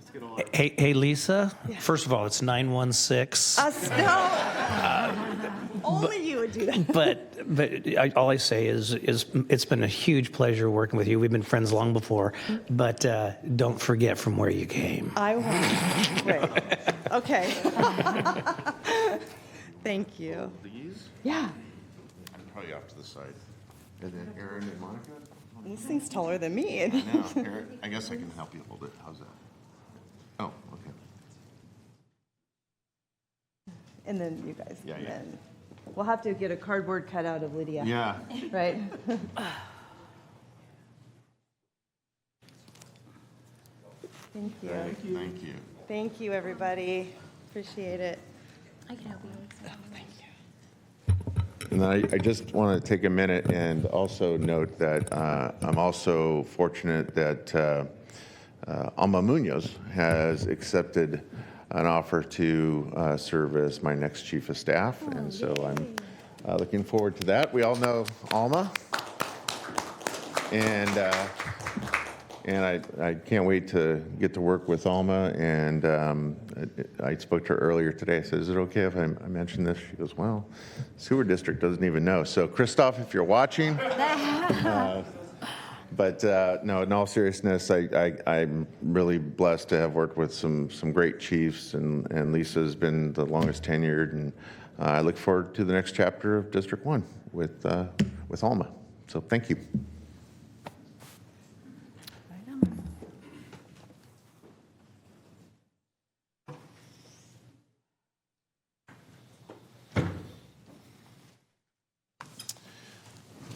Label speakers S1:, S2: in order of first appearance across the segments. S1: basket all.
S2: Hey, hey, Lisa, first of all, it's 916,
S3: Us, no. Only you would do that.
S2: but, but I- all I say is, is it's been a huge pleasure working with you. We've been friends long before, but uh, don't forget from where you came.
S3: I won't. Wait. Okay. Thank you.
S1: These,
S3: Yeah.
S1: probably off to the side. And then Aaron and Monica?
S3: This thing's taller than me.
S1: No, Aaron, I guess I can help you hold it. How's that? Oh, okay.
S3: And then you guys.
S1: Yeah,
S3: and
S1: yeah.
S3: then We'll have to get a cardboard cutout of Lydia.
S1: Yeah.
S3: Right? Thank you.
S1: Thank you.
S3: Thank you, everybody. Appreciate it.
S4: I can help you with something.
S1: And I, I just want to take a minute and also note that uh, I'm also fortunate that uh, uh, Alma Munoz has accepted an offer to uh, serve as my next chief of staff. And so I'm uh, looking forward to that. We all know Alma. And, uh, and I, I can't wait to get to work with Alma. And um, I, I spoke to her earlier today. I said, Is it okay if I, I mention this? She goes, Well, sewer district doesn't even know. So, Christoph, if you're watching, uh, but uh, no, in all seriousness, I, I, I'm really blessed to have worked with some, some great chiefs, and, and Lisa's been the longest tenured, and uh, I look forward to the next chapter of District 1 with, uh, with Alma. So thank you.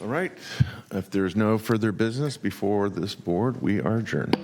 S1: All right, if there's no further business before this board, we are adjourned.